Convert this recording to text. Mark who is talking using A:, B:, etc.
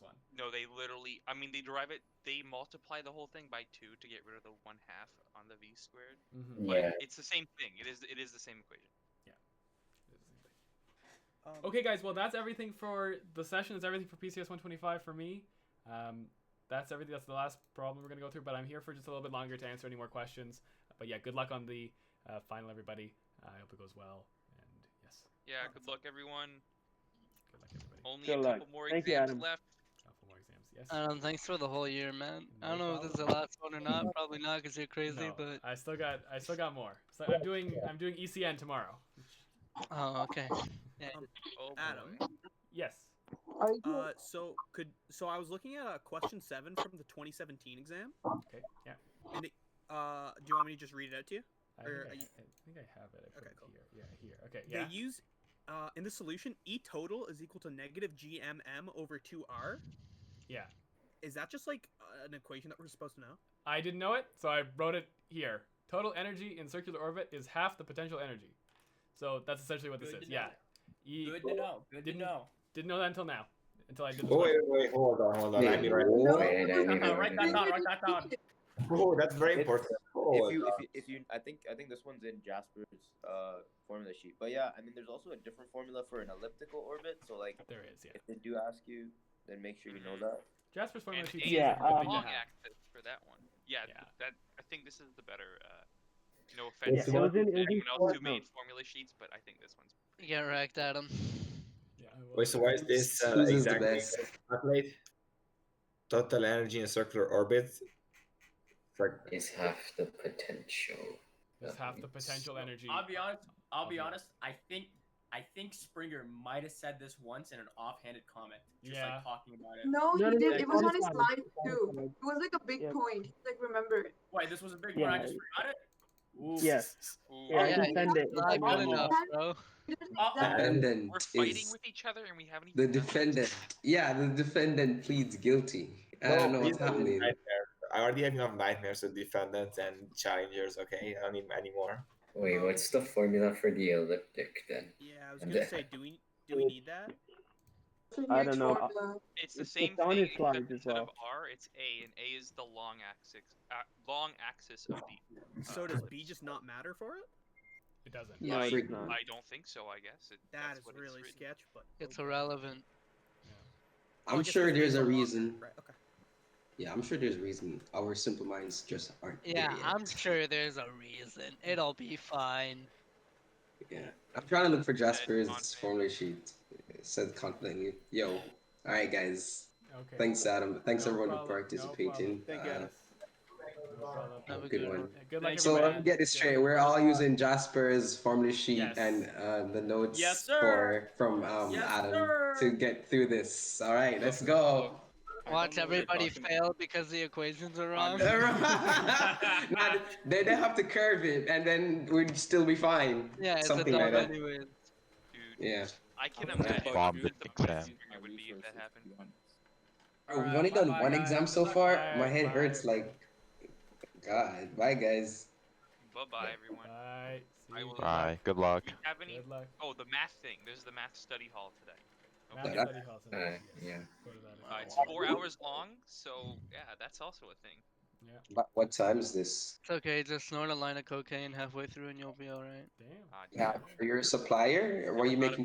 A: No, they literally. I mean, they derive it. They multiply the whole thing by two to get rid of the one half on the v squared.
B: Mm-hmm.
A: But
C: Yeah.
A: it's the same thing. It is. It is the same equation.
D: Um,
B: Okay, guys. Well, that's everything for the session. It's everything for PCS 125 for me. Um, that's everything. That's the last problem we're gonna go through. But I'm here for just a little bit longer to answer any more questions. But yeah, good luck on the uh, final, everybody. I hope it goes well. And yes,
A: Yeah.
D: Oh,
A: Good
D: that's
A: luck, everyone.
B: good luck, everybody.
A: Only
E: Good
A: a
E: luck.
A: couple more
E: Thank you,
A: exams
E: Adam.
A: left.
B: Couple more exams. Yes.
F: Um, thanks for the whole year, man. I
B: No
F: don't know if this is the
B: problem.
F: last one or not. Probably not, because you're crazy.
B: No,
F: But
B: I still got I still got more. So I'm doing I'm doing ECN tomorrow.
F: oh, okay.
A: Oh,
D: Adam.
A: boy.
B: Yes.
C: Are you
D: Uh, so could so I was looking at uh, question seven from the 2017 exam.
B: Okay. Yeah.
D: Uh, do you want me to just read it out to you?
B: I
D: Or
B: think I,
D: are you-
B: I think I have it. I put
D: Okay,
B: it
D: cool.
B: here. Yeah, here. Okay. Yeah.
D: They use uh, in the solution E total is equal to negative GMM over two R.
B: yeah.
D: Is that just like uh, an equation that we're supposed to know?
B: I didn't know it, so I wrote it here. Total energy in circular orbit is half the potential energy. So that's essentially what this
G: Good
B: is.
G: to
B: Yeah.
G: know.
B: E,
G: Good to know. Oh, Good to
B: Didn't-
G: know.
B: didn't know that until now. Until I did this.
H: Oh, wait, wait, hold on, hold on. I'll be right back.
C: No, Oh, wait, I
G: Uh,
C: need to-
G: write that down. Write that down.
H: Oh, that's very
C: If-
H: important. Oh,
C: If you, if you, if you, I think, I think this one's in Jasper's uh, formula sheet. But yeah, I mean, there's also a different formula for an elliptical orbit. So like,
B: There it is. Yeah.
C: if they do ask you, then make sure you know that.
I: Mm-hmm.
B: Jasper's formula
A: And
B: sheet. says
A: A is
B: it's a
A: the
B: good thing to
A: long
B: have.
A: axis for that one. Yeah,
B: Yeah.
A: th- That I think this is the better. Uh, no
H: It's
A: offense
H: the
A: to
H: one-
E: it was in, it was in
A: anyone else who
E: short
A: made
E: notes.
A: formula sheets, but I think this one's.
F: Get wrecked, Adam.
B: Yeah, I will.
H: Wait, so why is this uh,
C: Susan's the
H: exactly
C: best.
H: calculate total energy in circular orbit? It's like
C: Is half the potential.
B: It's half the potential energy.
G: I'll be honest. I'll be
B: Okay.
G: honest. I think I think Springer might have said this once in an offhanded comment, just
B: Yeah.
G: like talking about it.
E: No,
J: No, he
E: no,
J: did.
E: no,
J: It was
E: that
J: on
E: is
J: his
E: fine.
J: slide too.
E: That is
J: It was like a big
E: Yeah.
J: point. Like remember it.
G: Wait, this was a big
E: Yeah,
G: one. I
E: no,
G: just forgot it. Ooh.
E: Yes.
A: Ooh,
E: Yeah, I
F: yeah,
E: can send it. It's
F: Not
E: in
F: good
E: the-
F: enough, bro.
G: Uh,
A: And
K: defendant
A: We're fighting
K: is
A: with each other, and we haven't
K: the
A: even. done
K: defendant. Yeah, the defendant pleads guilty. I don't
H: No,
K: know what's
H: please don't
K: happening.
H: nightmare. I already have enough nightmares with defendants and challengers. Okay, I don't need any more.
C: Wait, what's the formula for the elliptic then?
D: Yeah, I was
C: And
D: gonna
C: the-
D: say, do we do we need that?
J: So
E: I
J: next
E: don't know.
J: formula.
A: It's the
E: It's-
A: same
E: it's on
A: thing
E: his
A: except
E: slides as
A: instead of
E: well.
A: R, it's A, and A is the long axis, uh, long axis of the. uh,
D: So does B just not matter for it?
B: It doesn't.
F: Yeah.
A: I,
K: freak not.
A: I don't think so. I guess it,
D: That
A: that's
D: is
A: what it's
D: really
A: written.
D: sketch, but
F: It's irrelevant.
D: Oh,
K: I'm
D: just
K: sure
D: because
K: there's
D: it's
K: a
D: long-
K: reason.
D: Right. Okay.
K: Yeah, I'm sure there's a reason. Our simple minds just aren't.
F: Yeah,
K: there yet.
F: I'm sure there's a reason. It'll be fine.
K: Yeah, I'm trying to look for
A: confident.
K: Jasper's formula sheet. It said confidently. Yo, all right, guys.
B: Okay.
K: Thanks, Adam. Thanks
B: No
K: everyone
B: problem,
K: for
B: no
K: participating.
B: problem.
E: Thank you,
K: Uh,
E: Adam.
B: No problem.
F: Have a
K: Good
F: good
K: one.
F: one.
B: Yeah, Good luck,
G: Thanks,
K: so let
B: everybody.
K: me get this
B: Yeah.
K: straight. We're all using Jasper's formula sheet
B: Yes.
K: and uh, the notes
G: Yes, sir.
K: for from um,
G: Yes,
K: Adam
G: sir.
K: to get through this. All right, let's go.
F: Watch everybody fail because the equations are wrong.
K: nah, they they have to curve it, and then we'd still be fine.
F: Yeah, it's
K: something
F: a
K: like
F: dumb
K: that.
F: anyways.
A: Dude,
K: yeah.
A: I can
K: I'm gonna
A: imagine what
I: bomb
A: the
I: the
A: best
I: exam.
A: it would be if that happened.
K: Bro,
B: Alright,
K: We've only done
B: bye-bye,
K: one
B: guys.
K: exam so
B: Bye,
K: far. My head
B: bye.
K: hurts. Like, God, bye guys.
A: Bye bye, everyone.
B: Bye. See
A: I
B: you.
A: will-
I: Bye. Good luck.
A: Do you have any?
B: Good luck.
A: Oh, the math thing. There's the math study hall today.
B: Math
K: Good
A: Okay.
K: luck.
B: study hall
C: Uh,
B: tonight.
C: yeah.
B: Go to that if
A: Uh,
B: you
A: it's
B: want.
A: four hours long, so yeah, that's also a thing.
K: But what time is this?
F: It's okay. Just snort a line of cocaine halfway through and you'll be all right.
B: Damn.
A: Uh,
K: Yeah, for your supplier, or were you
A: Everybody-
K: making?